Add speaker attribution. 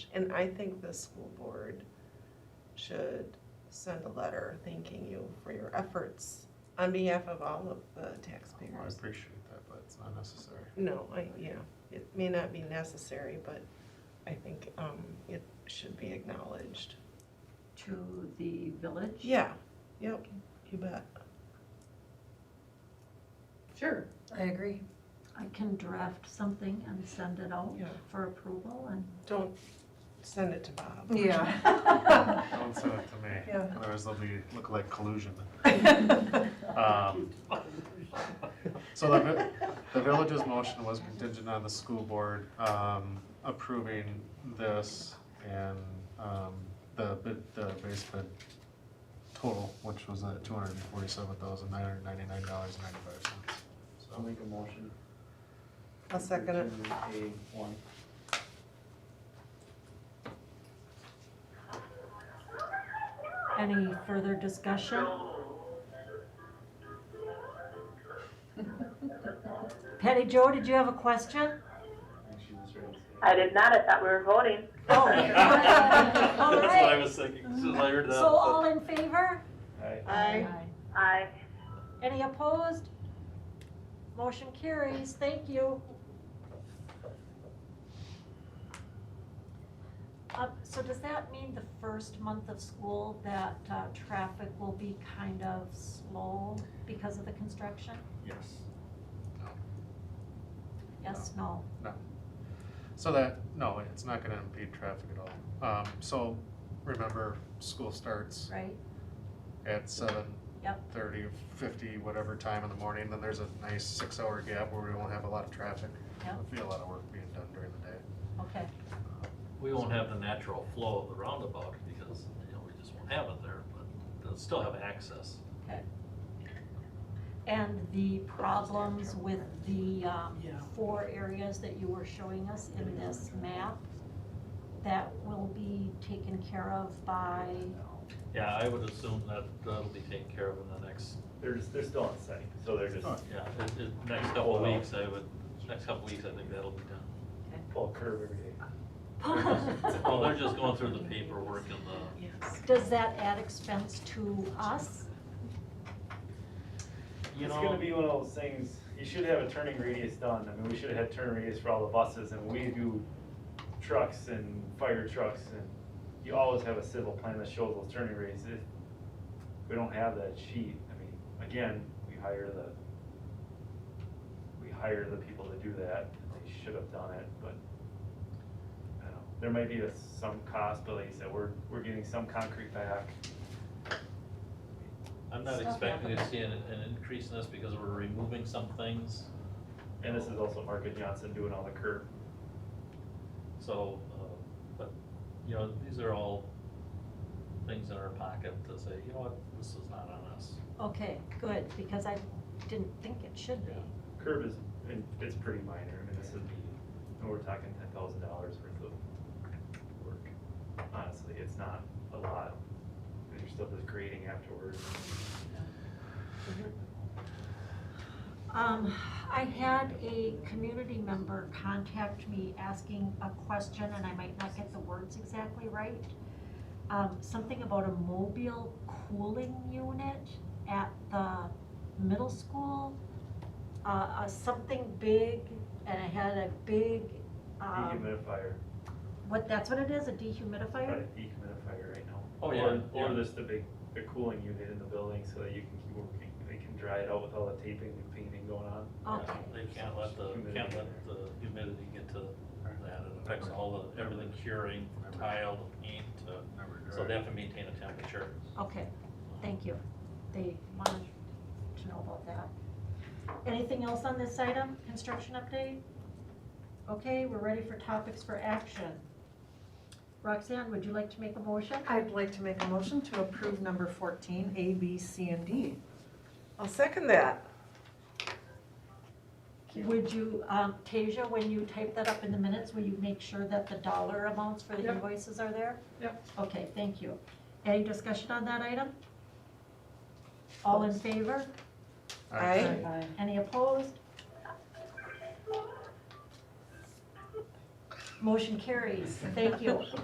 Speaker 1: And I think the school board should send a letter thanking you for your efforts on behalf of all of the
Speaker 2: Well, I
Speaker 1: taxpayers.
Speaker 2: appreciate that, but it's not necessary.
Speaker 1: No, I, yeah, it may not be necessary, but I think, um, it should be acknowledged.
Speaker 3: to the village?
Speaker 1: Yeah, yep, you bet.
Speaker 3: Sure.
Speaker 4: I agree.
Speaker 3: I can draft something and send it out
Speaker 1: Yeah.
Speaker 3: for approval and.
Speaker 1: Don't send it to Bob.
Speaker 4: Yeah.
Speaker 2: Don't send it to me,
Speaker 4: Yeah.
Speaker 2: otherwise they'll be, look like collusion. Um,
Speaker 3: Right.
Speaker 2: So the, vi- the village's motion was contingent on the school board um, approving this and um, the bid, the base bid total, which was at two hundred and forty-seven thousand nine hundred ninety-nine dollars and ninety-five cents.
Speaker 5: I'll
Speaker 2: So
Speaker 5: make a motion.
Speaker 1: I'll second it.
Speaker 5: Continue A one.
Speaker 3: Any further discussion? Patty Joe, did you have a question?
Speaker 5: Actually, that's right.
Speaker 6: I did not. I thought we were voting.
Speaker 3: Oh.
Speaker 7: That's
Speaker 3: All
Speaker 7: what I
Speaker 3: right.
Speaker 7: was thinking, as soon as I heard that.
Speaker 3: So all in favor?
Speaker 1: I,
Speaker 6: I
Speaker 3: Any opposed? Motion carries, thank you. Uh, so does that mean the first month of school that, uh, traffic will be kind of slow because of the construction?
Speaker 2: Yes.
Speaker 3: Yes, no?
Speaker 2: So that, no, it's not gonna impede traffic at all. Um, So remember, school starts
Speaker 3: Right?
Speaker 2: at seven
Speaker 3: Yep.
Speaker 2: thirty, fifty, whatever time in the morning, then there's a nice six-hour gap where we won't have a lot of traffic.
Speaker 3: Yep.
Speaker 2: There'll be a lot of work being done during the day.
Speaker 3: Okay,
Speaker 7: We won't have the natural flow of the roundabout because, you know, we just won't have it there, but they'll still have access.
Speaker 3: okay. And the problems with the, um, four areas that you were showing us in this map, that will be taken care of by,
Speaker 7: Yeah, I would assume that that'll be taken care of in the next,
Speaker 8: They're just, they're still on site, so they're just
Speaker 7: yeah, it, it, next couple of weeks, I would, next couple of weeks, I think that'll be done.
Speaker 8: pull a curve every day.
Speaker 7: Well, Oh, they're just going through the paperwork and the,
Speaker 1: yes.
Speaker 3: Does that add expense to us?
Speaker 7: you
Speaker 8: It's gonna
Speaker 7: know,
Speaker 8: be one of those things, you should have a turning radius done, I mean, we should have had turn radius for all the buses, and we do trucks and fire trucks, and you always have a civil plan that shows those turning radius, if we don't have that sheet, I mean, again, we hire the, we hire the people to do that, and they should have done it, but I don't know, there might be a- some cost, but like you said, we're, we're getting some concrete back,
Speaker 7: I'm not
Speaker 3: Stuff
Speaker 7: expecting to
Speaker 3: happens.
Speaker 7: see an, an increase in this because we're removing some things.
Speaker 8: and this is also Mark and Johnson doing all the curb
Speaker 7: So, uh, but, you know, these are all things in our pocket to say, you know what, this is not on us.
Speaker 3: Okay, good, because I didn't think it should be.
Speaker 8: Curb is, and it's pretty minor, I mean, this would be, and we're talking ten thousand dollars worth of work. Honestly, it's not a lot, there's still this grading afterwards.
Speaker 3: Um, I had a community member contact me asking a question, and I might not get the words exactly right. Um, something about a mobile cooling unit at the middle school. Uh, uh, something big, and it had a big, um,
Speaker 8: Dehumidifier,
Speaker 3: what, that's what it is, a
Speaker 8: got
Speaker 3: dehumidifier?
Speaker 8: a dehumidifier right now.
Speaker 7: Oh, yeah,
Speaker 8: Or- Or
Speaker 7: yeah.
Speaker 8: there's the big, the cooling unit in the building so that you can keep working, they can dry it out with all the taping and painting going on.
Speaker 3: Okay,
Speaker 7: They can't let the, can't let the humidity get to that, it affects all the, everything curing, from tile, to paint, to, so they have to maintain a temperature.
Speaker 3: okay, thank you. They wanted to know about that. Anything else on this item, construction update? Okay, we're ready for topics for action. Roxanne, would you like to make a motion?
Speaker 4: I'd like to make a motion to approve number fourteen, A, B, C, and D.
Speaker 1: I'll second that.
Speaker 3: Would you, um, Tasia, when you type that up in the minutes, will you make sure that the dollar amounts for the
Speaker 4: Yep.
Speaker 3: invoices are there?
Speaker 4: Yep.
Speaker 3: Okay, thank you. Any discussion on that item? All in favor?
Speaker 1: I,
Speaker 3: Any opposed? Motion carries. Thank you.